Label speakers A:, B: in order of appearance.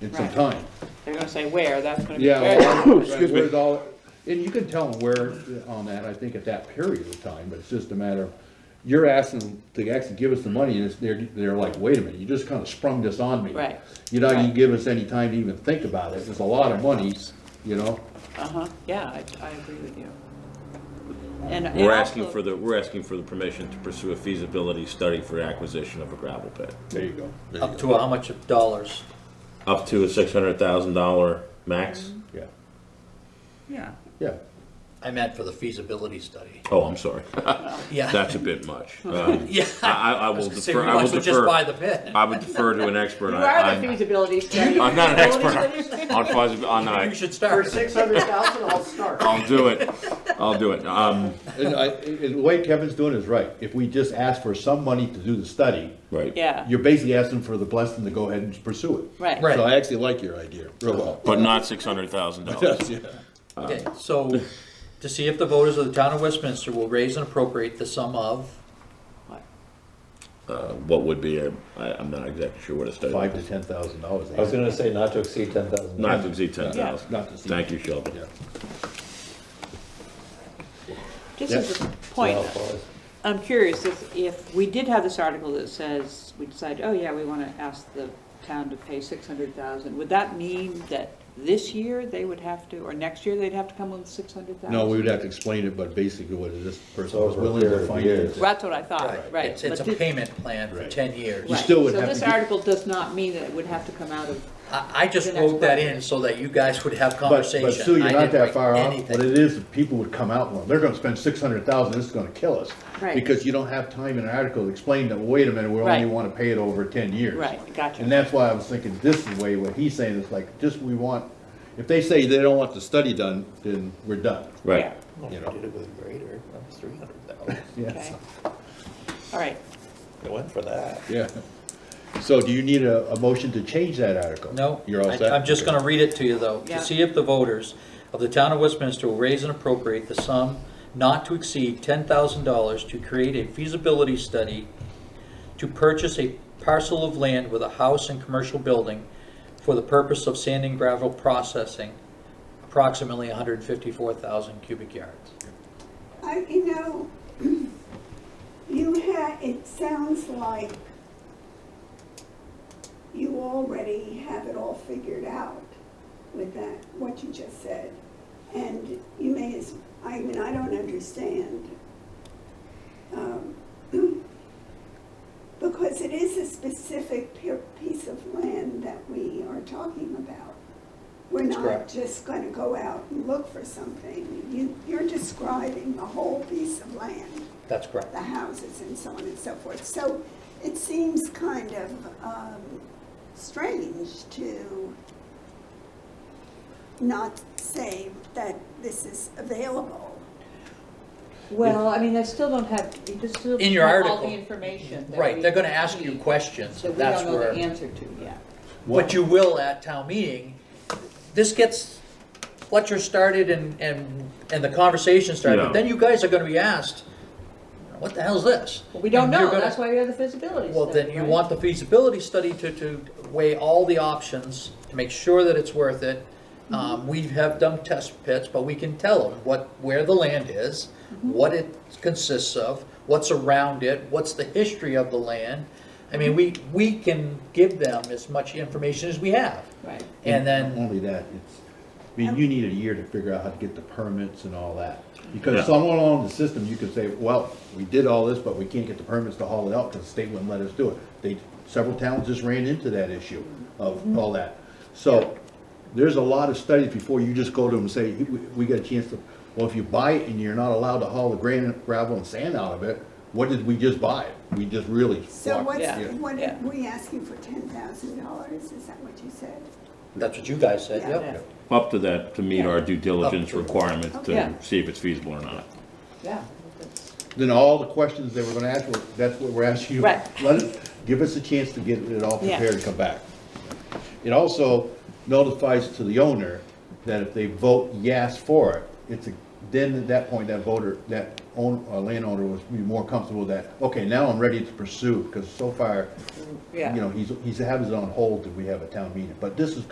A: in some
B: Right.
A: time.
B: They're gonna say where, that's gonna be
A: Yeah,
B: where.
A: well, excuse me, it's all- and you can tell them where on that, I think at that period of time, but it's just a matter of, you're asking to actually give us the money, and it's, they're, they're like, wait a minute, you just kinda sprung this on me.
B: Right.
A: You know, you
B: Right.
A: give us any time to even think about it, it's a lot of money, you know?
B: Uh-huh, yeah, I, I agree with you. And. and
C: We're asking
B: also-
C: for the, we're asking for the permission to pursue a feasibility study for acquisition of a gravel pit,
A: There you go.
D: Up to how much of dollars?
C: up to a six hundred thousand dollar max.
B: Mm-hmm.
A: Yeah,
B: Yeah,
A: yeah.
D: I meant for the feasibility study.
C: Oh, I'm sorry,
D: Yeah.
C: that's a bit much. Um,
D: Yeah.
C: I, I I will
D: Say
C: defer,
D: we
C: I will
D: might as well just buy
C: defer,
D: the pit.
C: I would defer to an expert.
B: you
C: I-
B: are the
C: I'm-
B: feasibility study.
C: I'm not an
B: Feasibility
C: expert
B: study.
C: on, feasi- on,
D: You
C: I,
D: should
E: For
D: start.
E: six hundred thousand, I'll start.
C: I'll do it, I'll do it. Um,
A: And I, and the way Kevin's doing is right, if we just ask for some money to do the study,
C: right.
B: Yeah,
A: you're basically asking for the blessing to go ahead and pursue it.
B: right.
D: Right.
A: So I actually like your idea, real well.
C: But not six hundred thousand dollars.
A: Yes, yeah.
D: Okay, so to see if the voters of the town of Westminster will raise and appropriate the sum of,
C: Uh, what would be, a- I, I'm not exactly sure what a study.
A: Five to ten thousand dollars.
F: I was gonna say not to exceed ten thousand.
C: Not to exceed ten thousand.
A: Not to exceed.
C: Thank you, Sheldon.
A: Yeah.
B: Just as a point, I'm curious if, if we did have this article that says, we decide, oh yeah, we wanna ask the town to pay six hundred thousand, would that mean that this year they would have to, or next year they'd have to come with six hundred thousand?
A: No, we would have to explain it, but basically what is this person was
F: Over a
A: willing to
F: period of
A: finance.
F: years.
A: it.
B: That's what I thought, right.
D: it's, it's a
B: but thi-
D: payment plan for
A: Right.
D: ten years.
A: You
B: right.
A: still would have to
B: So
A: get-
B: this article does not mean that it would have to come out of,
D: I, I just
B: The next
D: wrote that
B: budget.
D: in so that you guys would have
A: But,
D: conversation.
A: but Sue,
D: I
A: you're not
D: didn't
A: that
D: write
A: far off.
D: anything.
A: What it is, people would come out, well, they're gonna spend six hundred thousand, this is gonna kill us.
B: Right.
A: Because you don't have time in an article to explain that, wait a minute, we only
B: Right.
A: wanna pay it over ten years.
B: right, gotcha.
A: And that's why I was thinking this is the way, what he's saying is like, just we want, if they say they don't want the study done, then we're done,
C: Right.
A: you know?
F: Did it with a grader, that was three hundred thousand.
B: Yeah,
A: Yeah.
B: okay. All right,
F: It went for that.
A: Yeah. So do you need a, a motion to change that article?
D: No.
A: You're all
D: I-
A: set?
D: I'm just
A: Okay.
D: gonna read it to you, though.
B: Yeah.
D: To see if the voters of the town of Westminster will raise and appropriate the sum not to exceed ten thousand dollars to create a feasibility study to purchase a parcel of land with a house and commercial building for the purpose of sand and gravel processing, approximately hundred and fifty-four thousand cubic yards.
G: I, you know, you had, it sounds like you already have it all figured out with that, what you just said. And you may as, I mean, I don't understand. um, Because it is a specific pe- piece of land that we are talking about. We're
D: That's
G: not
D: correct.
G: just gonna go out and look for something. You, you're describing the whole piece of land
D: That's correct.
G: the houses and so on and so forth. So it seems kind of um, strange to not say that this is available.
B: well, I mean, I still don't have, you just still
D: In
B: don't
D: your
B: have all
D: article.
B: the information that
D: Right,
B: we
D: they're gonna ask you
B: need,
D: questions,
B: That we
D: that's
B: don't know
D: where.
B: the answer to yet.
D: But you will at town meeting. This gets Fletcher started and, and, and the conversation started,
C: Yeah.
D: but then you guys are gonna be asked, what the hell's this?
B: Well, we don't
D: And you're
B: know,
D: gonna-
B: that's why we have the feasibility study,
D: Well, then you
B: right?
D: want the feasibility study to, to weigh all the options, to make sure that it's worth it. Um, we have done test pits, but we can tell them what, where the land is, what it consists of, what's around it, what's the history of the land. I mean, we, we can give them as much information as we have.
B: Right.
A: Not
D: And then,
A: Only that, it's, I mean, you need a year to figure out how to get the permits and all that.
C: Yeah.
A: Because somewhere along the system, you could say, well, we did all this, but we can't get the permits to haul it out because the state wouldn't let us do it. They, several towns just ran into that issue of all that. So there's a lot of studies before you just go to them and say, "We- we got a chance to, well, if you buy it and you're not allowed to haul the granite, gravel and sand out of it, what did we just buy? We just really.
G: So
A: walked-
G: what's,
B: Yeah,
G: what
B: yeah.
G: are we asking for ten thousand dollars? Is that what you said?
D: that's what you guys said,
G: Yeah.
D: yep.
C: Up to that, to meet our due diligence
D: Up to it.
C: requirement
B: Yeah.
C: to see if it's feasible or not.
B: Yeah.
A: then all the questions they were gonna ask, were that's what we're asking you.
B: Right.
A: Let us, give us a chance to get it all
B: Yeah.
A: prepared and come back. It also notifies to the owner that if they vote yes for it, it's a, then at that point, that voter, that own, uh, landowner was be more comfortable that, okay, now I'm ready to pursue, because so far, you
B: Yeah.
A: know, he's, he's having it on hold that we have a town meeting, but this is